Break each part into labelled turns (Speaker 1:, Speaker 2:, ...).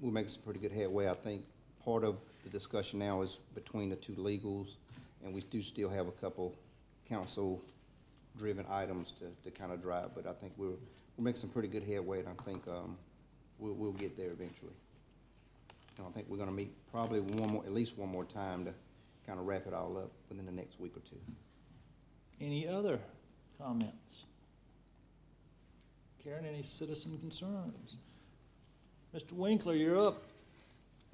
Speaker 1: we're making some pretty good headway. I think part of the discussion now is between the two legals, and we do still have a couple council-driven items to, to kind of drive, but I think we're, we're making some pretty good headway, and I think, um, we'll, we'll get there eventually. And I think we're gonna meet probably one more, at least one more time to kind of wrap it all up within the next week or two.
Speaker 2: Any other comments? Karen, any citizen concerns? Mr. Winkler, you're up.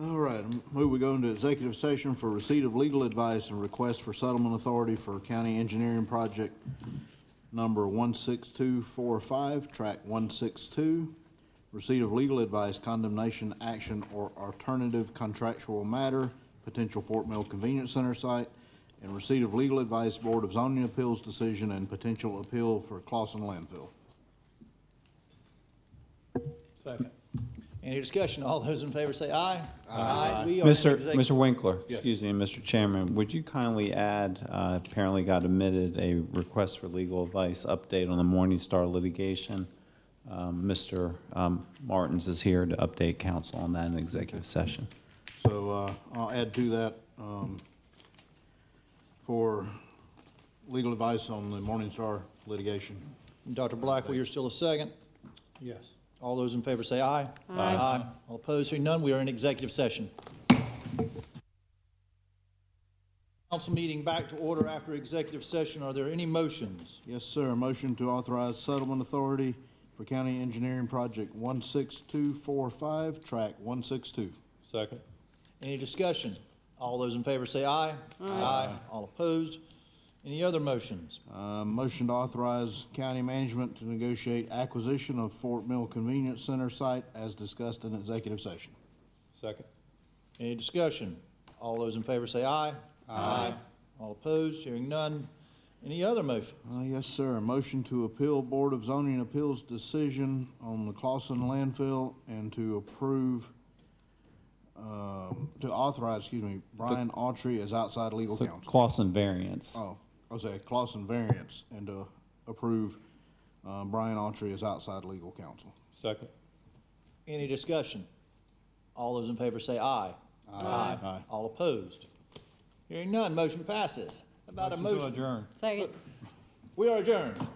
Speaker 3: All right, I move we go into executive session for receipt of legal advice and request for settlement authority for county engineering project number one six two four five, track one six two. Receipt of legal advice, condemnation, action, or alternative contractual matter, potential Fort Mill Convenience Center site, and receipt of legal advice, Board of Zoning Appeals decision, and potential appeal for Clausen landfill.
Speaker 2: Second. Any discussion? All those in favor say aye. Aye. We are in
Speaker 4: Mr.
Speaker 2: exec-
Speaker 4: Mr. Winkler, excuse me, Mr. Chairman, would you kindly add, uh, apparently got omitted, a request for legal advice update on the Morningstar litigation? Um, Mr. um, Martins is here to update council on that in executive session.
Speaker 3: So uh, I'll add to that um, for legal advice on the Morningstar litigation.
Speaker 2: Dr. Blackwell, you're still a second.
Speaker 5: Yes.
Speaker 2: All those in favor say aye. Aye. Aye. All opposed, hearing none, we are in executive session. Council meeting back to order after executive session. Are there any motions?
Speaker 3: Yes, sir. Motion to authorize settlement authority for county engineering project 16245, track 162.
Speaker 5: Second?
Speaker 2: Any discussion? All those in favor say aye. Aye. All opposed? Any other motions?
Speaker 3: Uh, Motion to authorize county management to negotiate acquisition of Fort Mill Convenience Center site as discussed in executive session.
Speaker 5: Second?
Speaker 2: Any discussion? All those in favor say aye. Aye. All opposed? Hearing none. Any other motion?
Speaker 3: Uh, yes, sir. Motion to appeal Board of Zoning Appeals decision on the Clausen landfill and to approve, um, to authorize, excuse me, Brian Autry as outside legal
Speaker 4: So
Speaker 3: counsel.
Speaker 4: Clausen variance.
Speaker 3: Oh, I was at Clausen variance and to approve, uh, Brian Autry as outside legal counsel.
Speaker 5: Second?
Speaker 2: Any discussion? All those in favor say aye. Aye. All opposed? Hearing none, motion passes. How About a motion.
Speaker 4: adjourn.
Speaker 6: Second.
Speaker 2: We are adjourned.